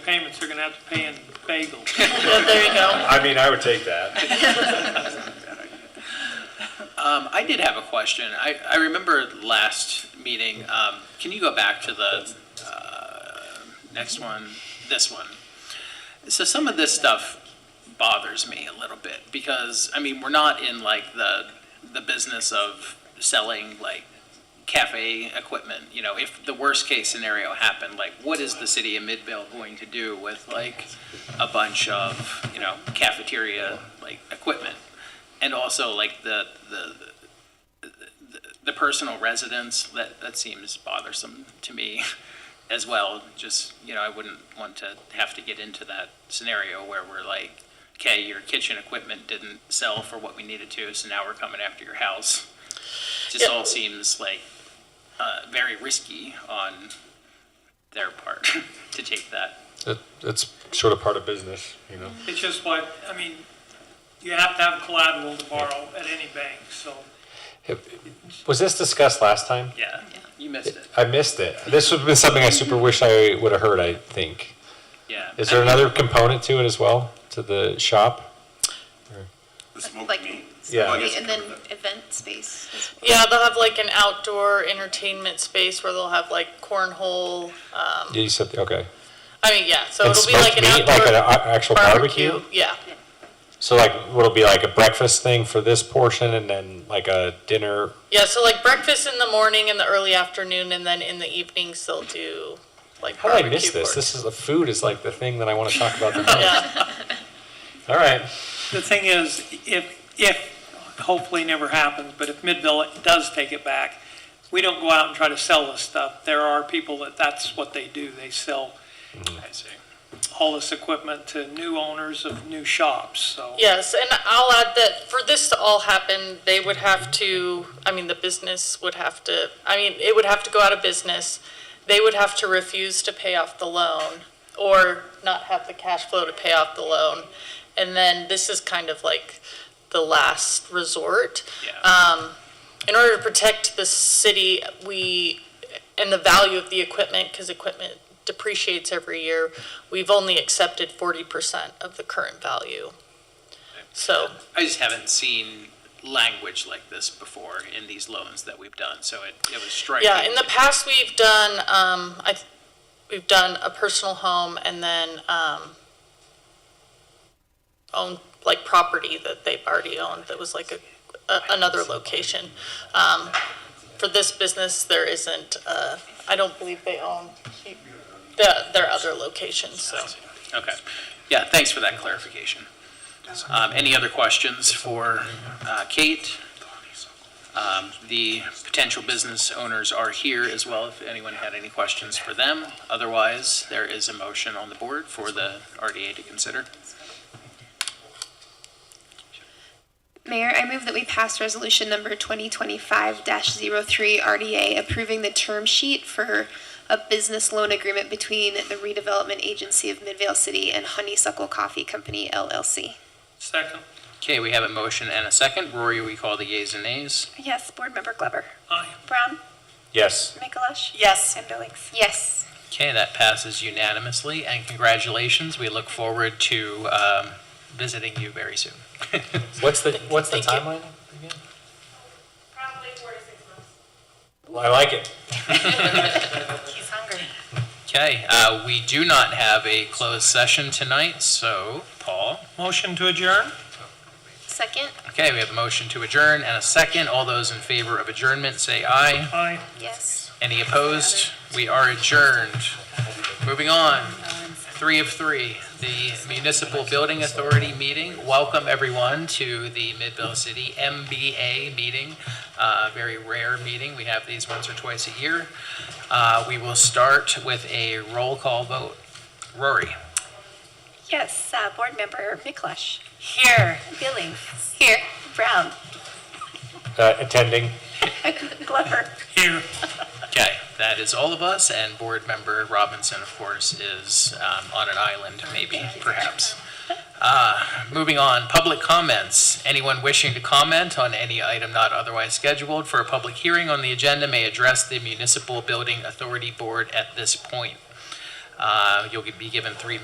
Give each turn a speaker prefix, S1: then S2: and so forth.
S1: payments they're gonna have to pay in bagels.
S2: Yeah, there you go.
S3: I mean, I would take that.
S4: Um, I did have a question. I, I remember last meeting, um, can you go back to the, uh, next one, this one? So some of this stuff bothers me a little bit because, I mean, we're not in like the, the business of selling like cafe equipment. You know, if the worst case scenario happened, like what is the city of Midvale going to do with like a bunch of, you know, cafeteria like equipment? And also like the, the, the- the personal residence, that, that seems bothersome to me as well. Just, you know, I wouldn't want to have to get into that scenario where we're like, okay, your kitchen equipment didn't sell for what we needed to, so now we're coming after your house. Just all seems like, uh, very risky on their part to take that.
S3: That, that's sort of part of business, you know.
S1: It's just what, I mean, you have to have collateral to borrow at any bank, so.
S3: Was this discussed last time?
S4: Yeah, you missed it,
S3: I missed it. This would have been something I super wish I would have heard, I think.
S4: yeah.
S3: Is there another component to it as well, to the shop?
S5: The smoke
S6: Like,
S5: meat.
S3: Yeah.
S5: Well, I guess
S6: and
S5: you
S6: then
S5: covered
S6: event space as well.
S2: Yeah, they'll have like an outdoor entertainment space where they'll have like cornhole. Um,
S3: Yeah, you said, okay.
S2: I mean, yeah, so
S3: And
S2: it'll be like
S3: smoked
S2: an
S3: meat, Like an
S2: outdoor
S3: a- actual barbecue?
S2: barbecue. Yeah,
S3: So like, what'll be like a breakfast thing for this portion and then like a dinner?
S2: yeah. So like breakfast in the morning and the early afternoon, and then in the evenings they'll do like.
S3: How did I
S2: barbecue
S3: miss this?
S2: pork.
S3: This is, the food is like the thing that I want to talk about the most.
S2: Yeah.
S3: All right.
S1: The thing is, if, if, hopefully never happens, but if Midville does take it back, we don't go out and try to sell this stuff. There are people that that's what they do. They sell
S4: I see.
S1: all this equipment to new owners of new shops, so.
S2: Yes, and I'll add that for this to all happen, they would have to, I mean, the business would have to, I mean, it would have to go out of business. They would have to refuse to pay off the loan or not have the cash flow to pay off the loan. And then this is kind of like the last resort.
S4: Yeah,
S2: Um, In order to protect the city, we, and the value of the equipment, because equipment depreciates every year, we've only accepted 40% of the current value. So.
S4: I just haven't seen language like this before in these loans that we've done, so it, it was striking.
S2: Yeah, in the past, we've done, um, I, we've done a personal home and then, um, own, like, property that they've already owned that was like a, a- another location. Um, for this business, there isn't, uh, I don't believe they own the, their other locations, so.
S4: Okay, yeah, thanks for that clarification. Um, any other questions for, uh, Kate? Um, the potential business owners are here as well, if anyone had any questions for them. Otherwise, there is a motion on the board for the RDA to consider.
S6: Mayor, I move that we pass resolution number 2025-03 RDA approving the term sheet for a business loan agreement between the redevelopment agency of Midvale City and Honeysuckle Coffee Company LLC.
S1: Second,
S4: Okay, we have a motion and a second. Rory, we call the yeas and nays.
S7: Yes, Board Member Glover.
S1: aye.
S7: Brown,
S3: Yes.
S7: Mikalash,
S2: Yes.
S7: and Billings.
S6: Yes.
S4: Okay, that passes unanimously, and congratulations. We look forward to um, visiting you very soon.
S3: What's the, what's the
S2: Thank you.
S3: timeline?
S7: Probably four to six months.
S3: I like it.
S7: He's hungry.
S4: Okay, uh, we do not have a closed session tonight, so, Paul?
S1: Motion to adjourn?
S6: Second?
S4: Okay, we have a motion to adjourn and a second. All those in favor of adjournment, say aye.
S1: Aye.
S6: Yes.
S4: Any opposed? We are adjourned. Moving on, three of three, the Municipal Building Authority meeting. Welcome, everyone, to the Midvale City MBA meeting. Uh, Very rare meeting. We have these once or twice a year. Uh, We will start with a roll call vote. Rory?
S7: Yes, uh, Board Member Mikalash. Here. Billings. Here. Brown,
S3: Uh, attending.
S7: Glover.
S1: Here.
S4: Okay, that is all of us, and Board Member Robinson, of course, is um, on an island, maybe, perhaps. Uh, Moving on, public comments. Anyone wishing to comment on any item not otherwise scheduled for a public hearing on the agenda may address the Municipal Building Authority Board at this point. Uh, You'll be given three